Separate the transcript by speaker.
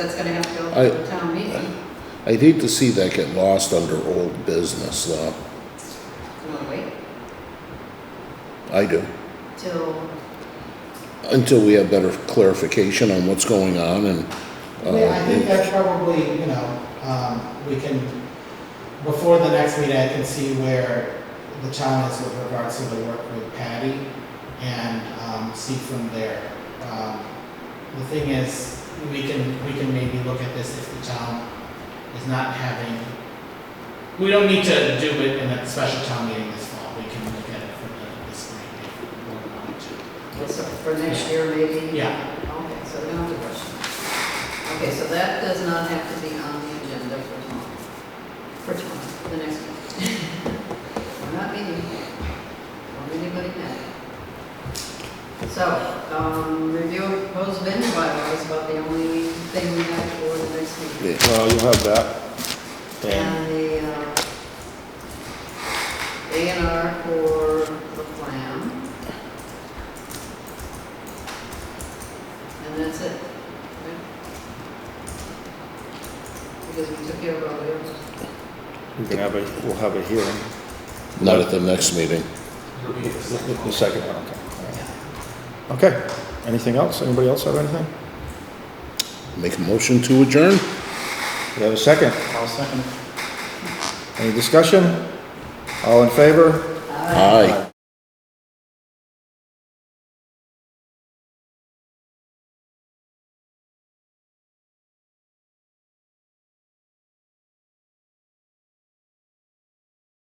Speaker 1: That's gonna have to go
Speaker 2: I-
Speaker 1: to town meeting.
Speaker 2: I'd hate to see that get lost under old business, though.
Speaker 1: You wanna wait
Speaker 2: I do.
Speaker 1: till,
Speaker 2: Until we have better clarification on what's going on and,
Speaker 3: Yeah, I think
Speaker 2: uh,
Speaker 3: that's probably, you know, um, we can, before the next meeting, I can see where the town is with regards to the work with Patty and, um, see from there. Um, The thing is, we can, we can maybe look at this if the town is not having, we don't need to do it in a special town meeting this fall, we can look at it for the, this spring if we want to.
Speaker 1: so for next year maybe?
Speaker 3: Yeah.
Speaker 1: Okay, so we don't have to rush. it. Okay, so that does not have to be on the agenda for tomorrow, for tomorrow, the next one. We're not meeting, or anybody mad. So, um, review of proposed venue bylaws about the only thing we have for the next meeting.
Speaker 2: yeah,
Speaker 4: Well, you'll have that. And
Speaker 1: And the, uh, A and R for the plan. And that's it. right? Because we took care of all the others.
Speaker 4: we can have a, we'll have a hearing.
Speaker 2: not at the next meeting.
Speaker 4: The the second one, okay. All right. Okay, anything else? Anybody else have anything?
Speaker 2: Make a motion to adjourn?
Speaker 4: We have a second.
Speaker 3: I'll second. Uh,
Speaker 4: Any discussion? All in favor?
Speaker 2: Aye.